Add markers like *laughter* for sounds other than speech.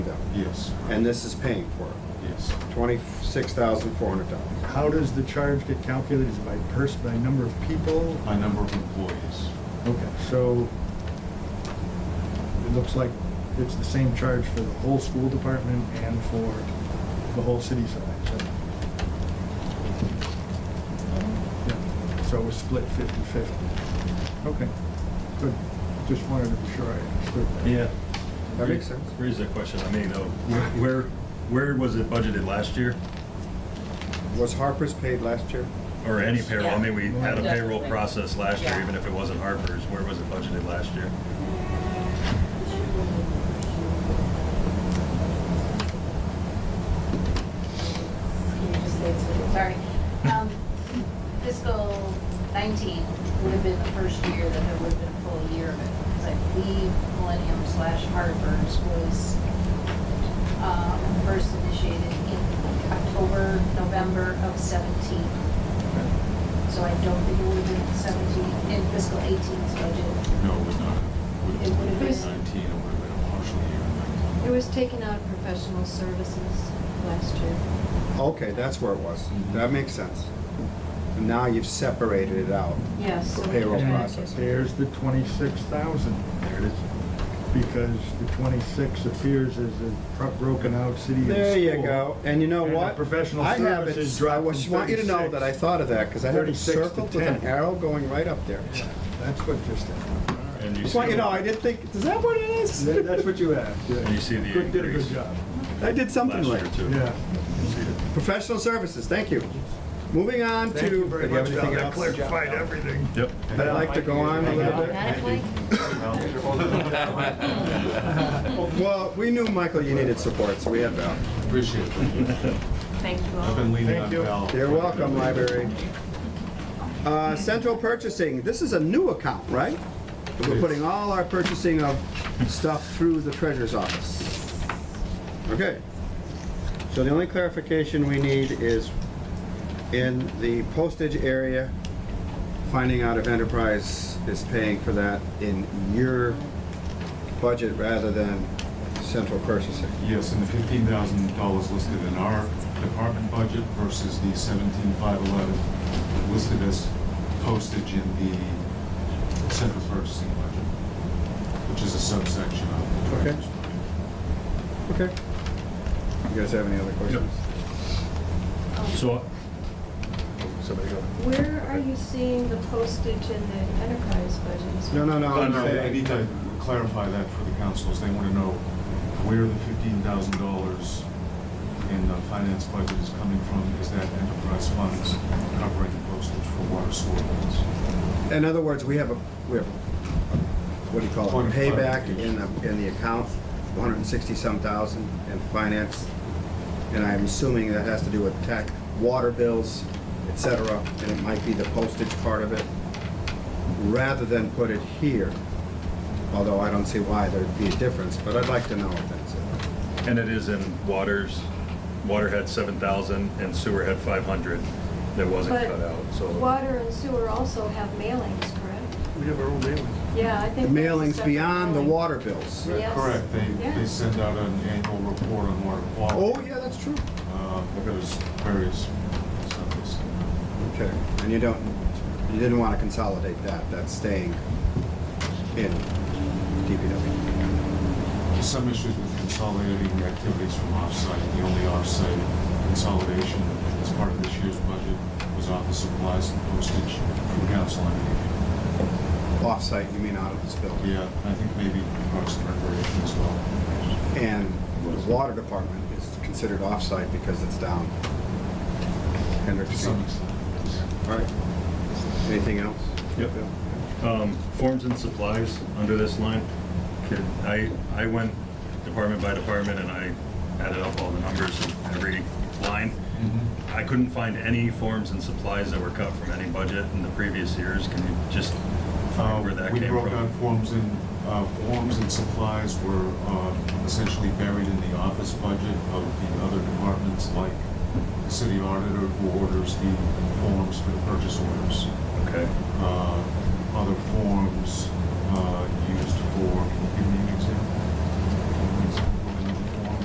Yes, and this is paying for it, yes. twenty-six thousand four hundred dollars. How does the charge get calculated? Is it by person, by number of people? My number of employees, Okay, so it looks like it's the same charge for the whole school department and for the whole city side, so. Yeah, So it was split 50/50. Okay, good. Just wanted to be sure I understood that. Yeah. That makes sense. Raise that question, I may know. Where, where was it budgeted last year? Was Harper's paid last year? Or any payroll? I mean, we had a Yeah. payroll process last year, Yeah. even if it wasn't Harper's. Where was it budgeted last year? Can you just say it's- Sorry. Um, Fiscal 19 would have been the first year that there would have been a full year of it. Because I believe Millennium slash Harvard's was um, first initiated in October, November of 17. So I don't think it would have been 17 in fiscal 18's budget. no, it would not, would It have would've been been- nineteen, it would have been a partial year It in nineteen. was taken out of professional services last year. Okay, that's where it was. That makes sense. And now you've separated it out. Yes. For payroll And process. There's the twenty-six thousand, There it is. because the twenty-six appears as a pro- broken out city and There you school. go. And you know And the what? professional I have it- services dropped I was- from want you to know that I 36. thought of that because I had it 36 to circled with an 10. arrow going right up there. Yeah, That's what just happened. All right. And you Just want you see, to know, I didn't think, is that what it is? That- That's what you asked, yeah. And you see the Good- Did a good increase. job. *laughs* I did something last like year too. Yeah. You see it. Professional services, thank you. Moving on to. Thank you very Do you have much, anything Val. That else? clarified everything. Yep. But I'd like to go on a little bit. Got it, Blake? Well, we knew, Michael, you needed support, so we had Val. Appreciate it. Thank you all. I've been leaning Thank on you. Val. You're welcome, library. Uh, Central purchasing, this is a new account, right? We're putting all our purchasing of stuff through the treasurer's office. Okay. So the only clarification we need is in the postage area, finding out if Enterprise is paying for that in your budget rather than central purchasing. Yes, and the fifteen thousand dollars listed in our department budget versus the seventeen five eleven listed as postage in the central purchasing budget, which is a subsection of the Okay. treasurer's budget. Okay. You guys have any other questions? So, somebody go. Where are you seeing the postage in the enterprise budgets? No, no, no. No, I'm no, I saying- need to clarify that for the councils. They want to know where the fifteen thousand dollars in the finance budget is coming from. Is that enterprise funds covering postage for water sewer bills? In other words, we have a, we have, a- what do you call Point it, of payback in clarification. the, in the account, one hundred and sixty-some thousand in finance. And I'm assuming that has to do with tax, water bills, et cetera, and it might be the postage part of it. Rather than put it here, although I don't see why there'd be a difference, but I'd like to know if that's it. And it is in waters, water had seven thousand and sewer had five hundred that wasn't But cut out, so. Water and sewer also have mailings, correct? We have our own mailings. Yeah, I The think. that's a mailings separate beyond the mailing. water bills. Yes. Correct. They, they Yeah. send out an annual report on water Oh, quality. yeah, that's true. Uh, There's various subjects. Okay, and you don't, you didn't want to consolidate that, that's staying in DPW. Some issues with consolidating activities from offsite. The only offsite consolidation as part of this year's budget was office supplies and postage from council and Off-site, you mean out of this building? Yeah, I think maybe Parks and Recreation as well. And the water department is considered off-site because it's down. To Hendrickson. some extent. All right. Anything else? Yep. Bill? Um, Forms and supplies under this line, Could- I, I went department by department and I added up all the numbers of every line. Mm-hmm. I couldn't find any forms and supplies that were cut from any budget in the previous years. Can you just Uh, find where that We came broke out from? forms and, uh, forms and supplies were uh, essentially buried in the office budget of the other departments, like the city auditor who orders the forms for the purchase orders. Okay, Uh, Other forms uh, used for, give me an example.